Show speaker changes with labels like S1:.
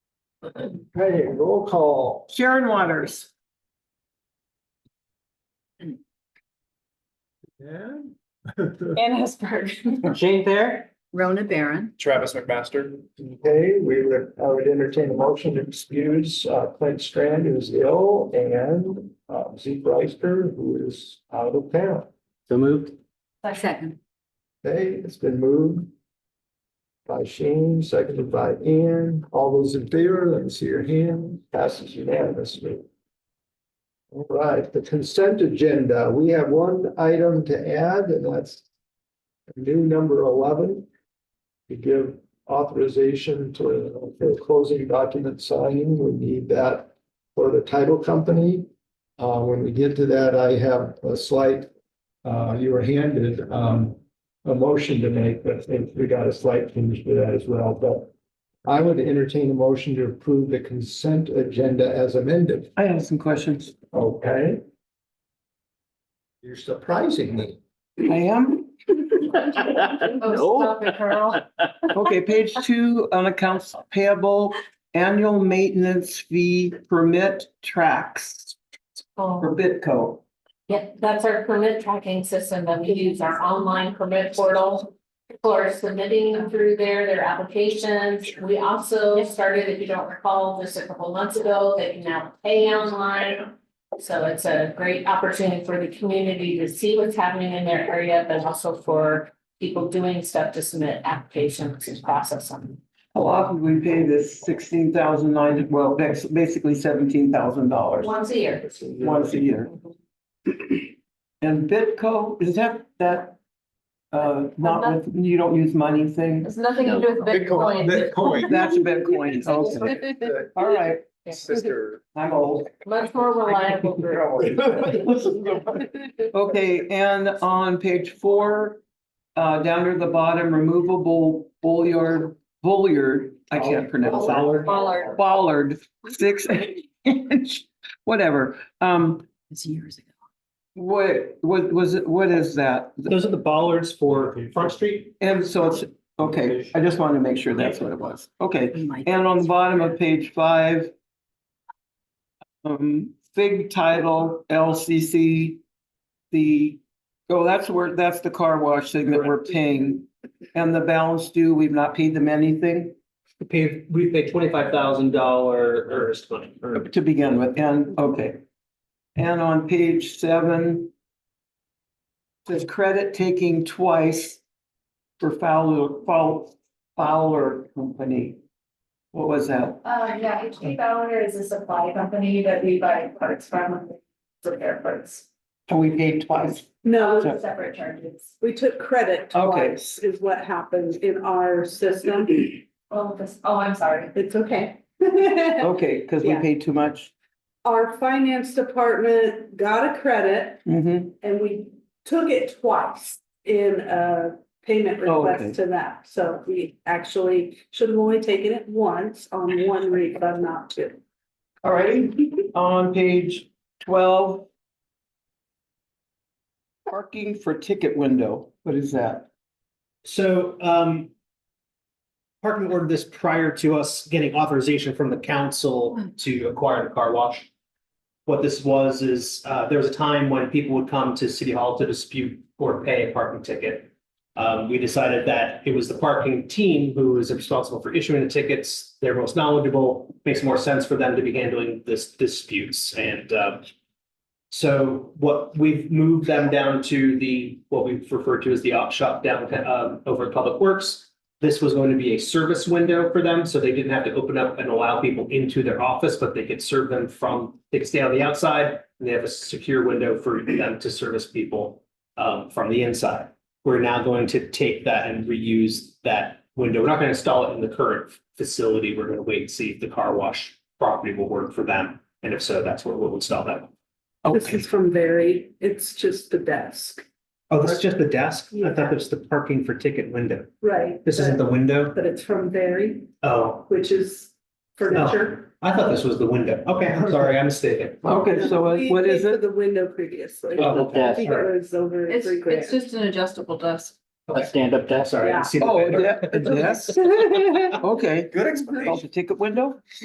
S1: Okay, roll call.
S2: Sharon Waters.
S1: Dan?
S3: Ann Hesberg.
S4: Jane Thayer?
S2: Rona Barron.
S5: Travis McMaster.
S1: Okay, we would, I would entertain a motion to excuse uh, Clint Strand, who's ill, and uh, Zeke Reister, who is out of town.
S4: So moved.
S2: Second.
S1: Okay, it's been moved by Shane, seconded by Ian. All those in favor, let me see your hand. Passes unanimously. All right, the consent agenda. We have one item to add, and that's new number eleven. To give authorization to for closing document signing, we need that for the title company. Uh, when we get to that, I have a slight, uh, you were handed, um, a motion to make, but I think we got a slight change to that as well, but. I would entertain a motion to approve the consent agenda as amended,
S4: I have some questions.
S1: okay? You're surprising me.
S4: I am.
S3: Oh, stop it, Carl.
S4: Okay, page two on accounts payable, annual maintenance fee permit tracks
S3: Oh,
S4: for Bitco.
S3: Yeah, that's our permit tracking system that we use, our online permit portal. For submitting through there their applications. We also started, if you don't recall, just a couple months ago, they can now pay online. So it's a great opportunity for the community to see what's happening in their area, but also for people doing stuff to submit applications and process them.
S4: How often do we pay this sixteen thousand nine, well, that's basically seventeen thousand dollars
S3: Once a year.
S4: once a year? And Bitco, is that, that, uh, not with, you don't use money thing?
S3: It's nothing to do with
S5: Bitcoin.
S3: Bitcoin.
S5: Bitcoin.
S4: That's Bitcoin, okay. All right,
S5: Sister.
S4: I'm old.
S3: Much more reliable group.
S4: Okay, and on page four, uh, down near the bottom, removable bulliard, bulliard, I can't pronounce that.
S1: Dollar.
S3: Baller.
S4: Bollard, six inch, whatever. Um,
S2: It's years ago.
S4: what, what was, it? what is that?
S6: Those are the bollards for Front Street.
S4: And so it's, okay, I just wanted to make sure that's what it was. Okay,
S2: We might-
S4: and on the bottom of page five. Um, fig title LCC, the, oh, that's where, that's the car wash thing that we're paying. And the balance due, we've not paid them anything
S6: We paid, we paid twenty-five thousand dollar earnest money. or-
S4: to begin with, and, okay. And on page seven. Says credit taking twice for Fowler, Fow- Fowler Company. What was that?
S3: Uh, yeah, HP Bauer is a supply company that we buy parts from, and repair parts.
S4: And we paid twice.
S7: No,
S4: So-
S3: Separate charges.
S7: we took credit
S4: Okay.
S7: twice is what happened in our system.
S3: Oh, this, oh, I'm sorry.
S7: It's okay.
S4: Okay, because we
S7: Yeah.
S4: paid too much.
S7: Our finance department got a credit
S4: Mm-hmm.
S7: and we took it twice in a payment
S4: Oh, okay.
S7: request to that. So we actually should have only taken it once on one refund, not two.
S4: All righty, on page twelve. Parking for ticket window, what is that?
S6: So, um. Parking ordered this prior to us getting authorization from the council to acquire the car wash. What this was is, uh, there was a time when people would come to city hall to dispute or pay a parking ticket. Um, we decided that it was the parking team who is responsible for issuing the tickets. They're most knowledgeable. Makes more sense for them to be handling this disputes and, um. So what we've moved them down to the, what we've referred to as the op shop down um over at Public Works. This was going to be a service window for them, so they didn't have to open up and allow people into their office, but they could serve them from, they could stay on the outside. And they have a secure window for them to service people um from the inside. We're now going to take that and reuse that window. We're not going to install it in the current facility. We're going to wait and see if the car wash property will work for them. And if so, that's where we'll install that.
S7: This is from Barry. It's just the desk.
S6: Oh, this is just the desk? I
S7: Yeah.
S6: thought this was the parking for ticket window.
S7: Right.
S6: This isn't the window?
S7: But it's from Barry,
S6: Oh,
S7: which is furniture.
S6: I thought this was the window. Okay, I'm sorry, I'm mistaken.
S4: Okay, so
S7: We
S4: what is
S7: paid for
S4: it?
S7: The window previously.
S6: Oh,
S7: I think it was over
S8: It's,
S7: three grand.
S8: it's just an adjustable desk.
S6: A
S4: stand-up desk.
S6: Sorry, I didn't see the
S4: Oh,
S6: window.
S4: yeah, yes, okay.
S5: Good
S4: Called
S5: explanation.
S4: the ticket window?